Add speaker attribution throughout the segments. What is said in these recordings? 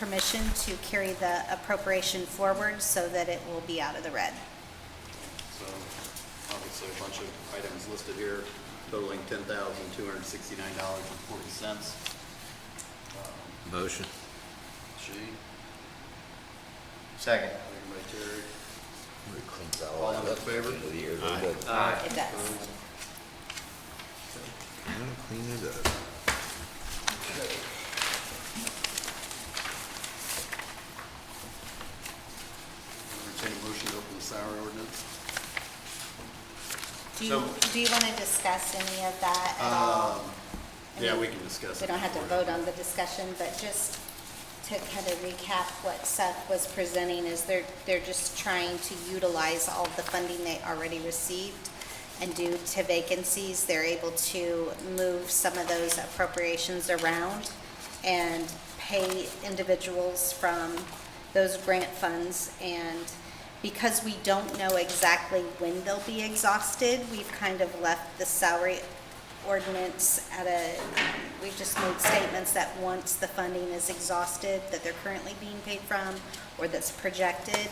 Speaker 1: permission to carry the appropriation forward so that it will be out of the red.
Speaker 2: So obviously a bunch of items listed here totaling ten thousand two hundred sixty-nine dollars and forty cents.
Speaker 3: Motion.
Speaker 2: She,
Speaker 4: Second.
Speaker 2: second by Terry.
Speaker 3: All
Speaker 2: All in favor?
Speaker 1: It does.
Speaker 2: Opposed?
Speaker 3: Clean it up.
Speaker 2: Entertain a motion to open the salary ordinance.
Speaker 1: Do you, do you want to discuss any of that at all? I
Speaker 2: Um, Yeah,
Speaker 1: mean,
Speaker 2: we can discuss.
Speaker 1: We
Speaker 2: it
Speaker 1: don't have to
Speaker 2: before.
Speaker 1: vote on the discussion, but just to kind of recap what Seth was presenting is they're, they're just trying to utilize all the funding they already received. And due to vacancies, they're able to move some of those appropriations around and pay individuals from those grant funds. And because we don't know exactly when they'll be exhausted, we've kind of left the salary ordinance at a, we've just made statements that once the funding is exhausted, that they're currently being paid from, or that's projected,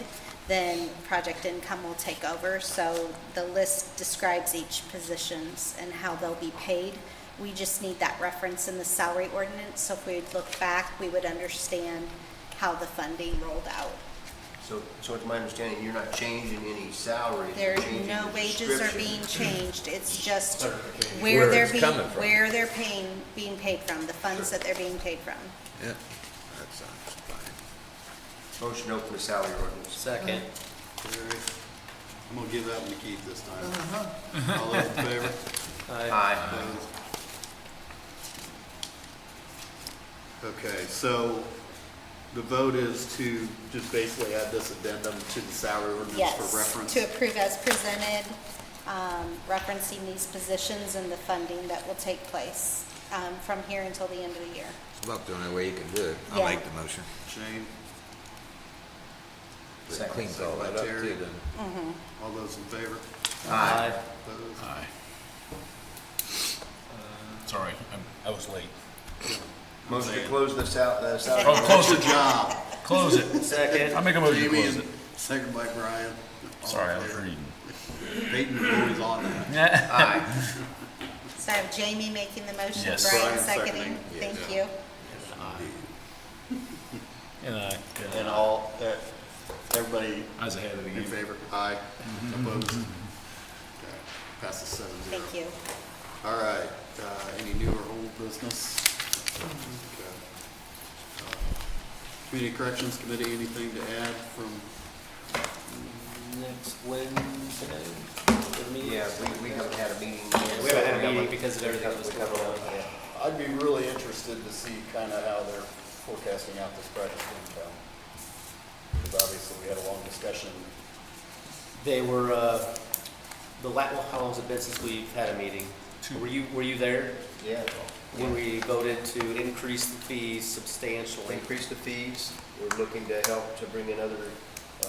Speaker 1: then project income will take over. So the list describes each positions and how they'll be paid. We just need that reference in the salary ordinance, so if we look back, we would understand how the funding rolled out.
Speaker 4: So, so it's my understanding you're not changing any salaries.
Speaker 1: There,
Speaker 4: you're changing
Speaker 1: no
Speaker 4: the
Speaker 1: wages are
Speaker 4: description.
Speaker 1: being changed, it's just
Speaker 4: Clarification.
Speaker 1: where
Speaker 3: Where
Speaker 1: they're
Speaker 3: it's
Speaker 1: being,
Speaker 3: coming from.
Speaker 1: where they're paying, being paid from, the funds that they're being paid from.
Speaker 3: Yeah, that sounds fine.
Speaker 4: Motion to open the salary ordinance.
Speaker 5: Second.
Speaker 2: Terry, I'm gonna give that one to Keith this time.
Speaker 1: Uh-huh.
Speaker 2: All those in favor?
Speaker 4: Aye.
Speaker 2: Opposed? Okay, so the vote is to just basically add this addendum to the salary ordinance for
Speaker 1: Yes,
Speaker 2: reference.
Speaker 1: to approve as presented, um, referencing these positions and the funding that will take place, um, from here until the end of the year.
Speaker 3: It's about the only way you can do it.
Speaker 1: Yeah.
Speaker 3: I'll make the motion.
Speaker 2: Shane,
Speaker 3: It
Speaker 4: Second.
Speaker 3: Cleans all that
Speaker 2: Second
Speaker 3: up
Speaker 2: by Terry.
Speaker 3: too, then.
Speaker 2: all those in favor?
Speaker 5: Aye.
Speaker 2: Opposed?
Speaker 6: Aye. Sorry, I'm- I was late.
Speaker 4: Motion to close the sal, the
Speaker 6: Oh,
Speaker 4: salary.
Speaker 6: close
Speaker 2: Good
Speaker 6: it,
Speaker 2: job.
Speaker 6: close it.
Speaker 4: Second.
Speaker 6: I'll make a motion to
Speaker 2: Jamie,
Speaker 6: close
Speaker 2: and
Speaker 6: it.
Speaker 2: second by Brian. All
Speaker 6: Sorry,
Speaker 2: in
Speaker 6: I was
Speaker 2: favor?
Speaker 6: reading.
Speaker 2: Peyton Boyd is on that.
Speaker 4: Aye.
Speaker 1: So I have Jamie making the motion, Brian
Speaker 6: Yes.
Speaker 2: Brian
Speaker 1: seconding,
Speaker 2: seconding,
Speaker 1: thank
Speaker 2: yes.
Speaker 1: you.
Speaker 6: And I,
Speaker 2: And all, uh, everybody Mm-hmm.
Speaker 6: I was ahead of the
Speaker 2: in
Speaker 6: game.
Speaker 2: favor? Aye. Opposed? Okay, Passes seven zero.
Speaker 1: Thank you.
Speaker 2: All right, uh, any new or old business? Okay. Uh, Community Corrections Committee, anything to add from,
Speaker 5: Next Wednesday, the meeting?
Speaker 4: Yeah, we, we haven't had a meeting yet.
Speaker 5: We haven't had a meeting because of everything that was
Speaker 4: We haven't-
Speaker 5: going on.
Speaker 2: I'd be really interested to see kind of how they're forecasting out this project in town. Because obviously, we had a long discussion.
Speaker 5: They were, uh, the la, well, how long's it been since we've had a meeting? Were you, were you there
Speaker 4: Yeah.
Speaker 5: when we voted to increase the fees substantially?
Speaker 4: Increase the fees. We're looking to help to bring in other.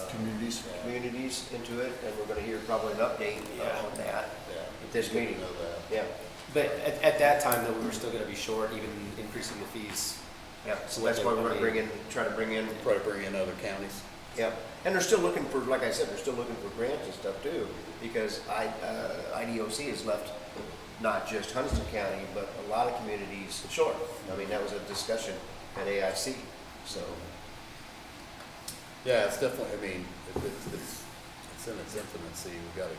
Speaker 4: Communities. Communities into it, and we're gonna hear probably an update uh,
Speaker 5: Yeah.
Speaker 4: on that.
Speaker 2: Yeah.
Speaker 4: At this meeting.
Speaker 2: Know that.
Speaker 4: Yeah,
Speaker 5: But at, at that time, though, we were still gonna be short, even increasing the fees.
Speaker 4: yeah. So that's why we're gonna bring in, try to bring in
Speaker 2: Probably bring in other counties.
Speaker 4: Yeah, and they're still looking for, like I said, they're still looking for grants and stuff too, because I, uh, IDOC has left not just Huntston County, but a lot of communities short. I mean, that was a discussion at AIC, so,
Speaker 2: Yeah, it's definitely, I mean, it- it's, it's, it's in its infancy, we've got to.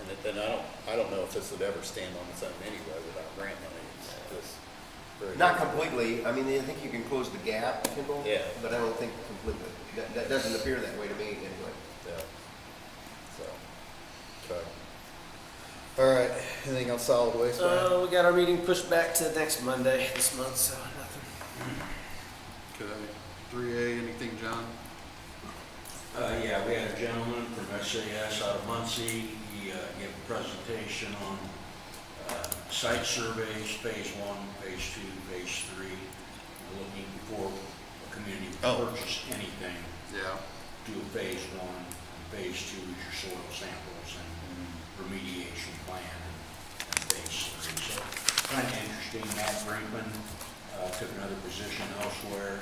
Speaker 2: And it- and I don't, I don't know if this would ever stand on its own anyway without grant money, it's just. very-
Speaker 4: not completely, I mean, I think you can close the gap, Kimball.
Speaker 2: Yeah.
Speaker 4: But I don't think completely, that, that doesn't appear that way to me anyway.
Speaker 2: Yeah. So, okay. All right, anything else solid waste? Brian?
Speaker 5: So we got our meeting pushed back to next Monday this month, so nothing.
Speaker 2: Okay, three A, anything, John?
Speaker 7: Uh, yeah, we had a gentleman from SAS out of Muncie. He, uh, gave a presentation on, uh, site surveys, phase one, phase two, phase three. Looking before a community
Speaker 2: Oh.
Speaker 7: purchase anything,
Speaker 2: Yeah.
Speaker 7: do a phase one, phase two is your soil samples and remediation plan, and phase three. So, kind of interesting, Matt Brinkman, uh, uh, took another position elsewhere.